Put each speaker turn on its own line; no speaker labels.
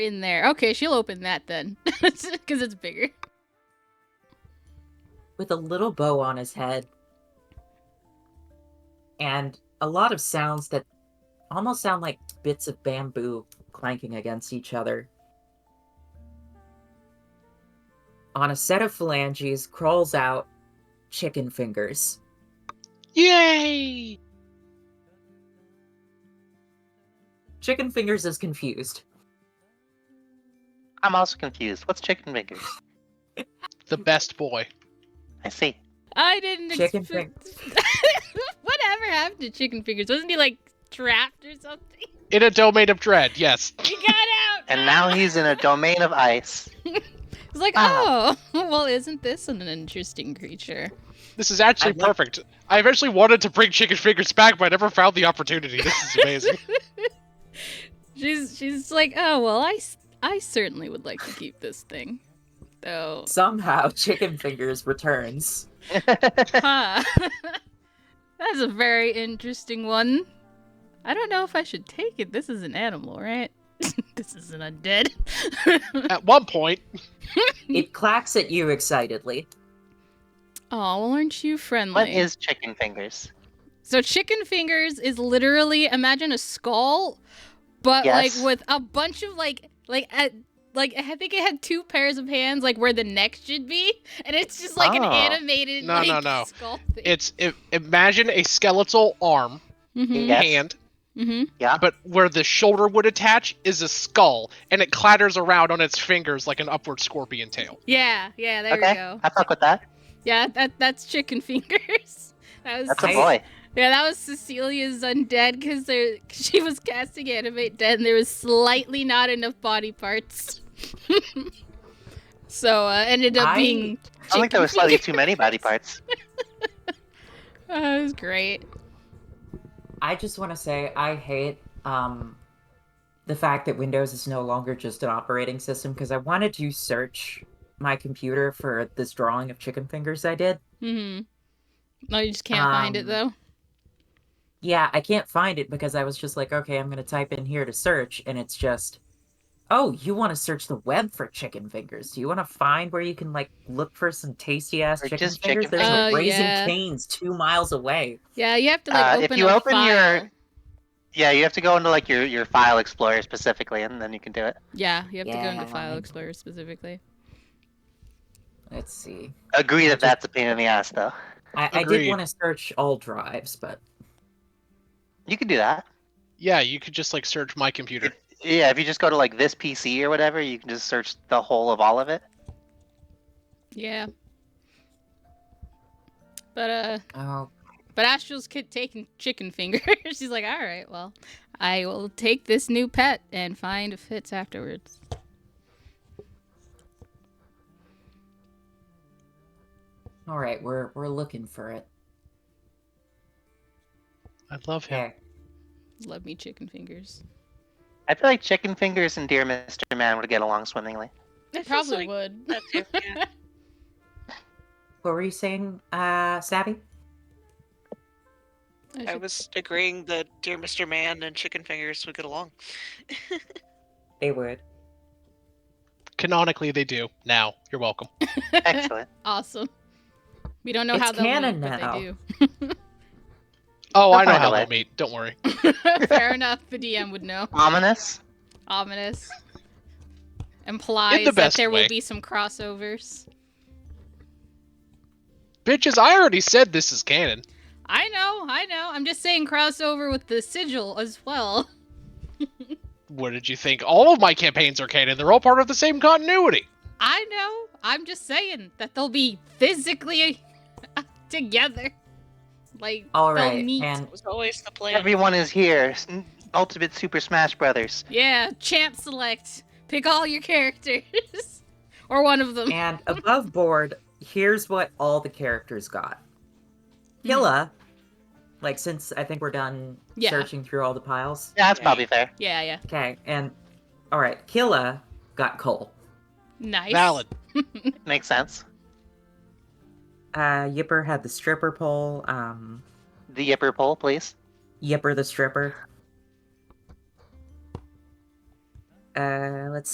in there. Okay, she'll open that then, because it's bigger.
with a little bow on his head and a lot of sounds that almost sound like bits of bamboo clanking against each other. On a set of phalanges crawls out chicken fingers.
Yay!
Chicken fingers is confused.
I'm also confused. What's chicken fingers?
The best boy.
I see.
I didn't.
Chicken
expect- Whatever happened to chicken fingers? Wasn't he like trapped or something?
In a domain of dread, yes.
He got out.
And now he's in a domain of ice.
It's like, oh,
Ah.
well, isn't this an interesting creature?
This is
I
actually
love-
perfect. I eventually wanted to bring chicken fingers back, but I never found the opportunity. This is amazing.
She's she's like, oh, well, I s- I certainly would like to keep this thing, though.
Somehow chicken fingers returns.
Huh. That's a very interesting one. I don't know if I should take it. This is an animal, right? this is an undead.
At one point,
It clacks at you excitedly.
oh, well, aren't you friendly?
What is chicken fingers?
So chicken fingers is literally imagine a skull, but
Yes.
like with a bunch of like like at, like I think it had two pairs of hands like where the neck should be, and it's just like an
Oh.
animated
No,
like,
no, no.
skull thing.
it's i imagine a skeletal arm,
mm-hmm.
Yes.
hand,
Mm-hmm.
but where the shoulder would attach is a skull, and it clatters around on its fingers like an upward scorpion tail.
Yeah, yeah, there
okay,
we go.
I fuck with that.
Yeah, that that's chicken fingers. That was
That's a
I-
boy.
yeah, that was Cecilia's undead because there she was casting animate dead and there was slightly not enough body parts. so uh, ended up
I-
being
I think there were slightly too many body parts.
That was great.
I just want to say I hate um, the fact that Windows is no longer just an operating system because I wanted to search my computer for this drawing of chicken fingers I did.
Mm-hmm. No, you just can't find it
Um,
though.
Yeah, I can't find it because I was just like, okay, I'm going to type in here to search. And it's just, oh, you want to search the web for chicken fingers. Do you want to find where you can like look for some tasty ass
Or
chicken
just
fingers?
chicken
There's
fingers.
a
Oh,
Raising
yeah.
Cane's two miles away.
Yeah, you have to like
uh, if
open
you
a
open your-
file.
Yeah, you have to go into like your, your file explorer specifically, and then you can do it.
Yeah, you have to go into
Yeah.
File Explorer specifically.
Let's see.
Agree that that's a pain in the ass, though.
I, I
Agreed.
did want to search all drives, but
You can do that.
Yeah, you could just like search my computer.
Yeah, if you just go to like this PC or whatever, you can just search the whole of all of it.
Yeah. But uh,
oh,
but Astral's kid taking chicken finger. She's like, all right, well, I will take this new pet and find if fits afterwards.
all right, we're we're looking for it.
I love him.
There.
Love me chicken fingers.
I feel like Chicken Fingers and Dear Mr. Man would get along swimmingly.
It
This is
probably
like-
would.
That's it, yeah.
What were you saying, uh, Savvy?
I
I
should-
was agreeing that Dear Mr. Man and Chicken Fingers would get along.
They would.
Canonically, they do. Now, you're welcome.
Excellent.
awesome. We don't know
It's
how they'll
canon
meet, but
now.
they do.
Oh, I
They'll
know
find
how
a way.
they'll meet. Don't worry.
Fair enough. The DM would know.
Ominous.
ominous implies that
best
there will
way.
be some crossovers.
Bitches, I already said this is canon.
I know, I know. I'm just saying crossover with the sigil as well.
What did you think? All of my campaigns are canon. They're all part of the same continuity.
I know. I'm just saying that they'll be physically together. Like
All
they'll
right,
meet.
and
It was always the plan.
Everyone is here. S- Ultimate Super Smash Brothers.
Yeah, champ select. Pick all your characters or one of them.
and above board, here's what all the characters got.
Hmm.
Hilla, like since I think we're done
Yeah.
searching through all the piles.
Yeah, that's
Yeah.
probably fair.
Yeah, yeah.
Okay, and all right, Killa got coal.
Nice.
Valid.
Makes sense.
Uh, Yipper had the stripper pole. Um,
The Yipper poll, please.
Yipper the stripper. Uh, let's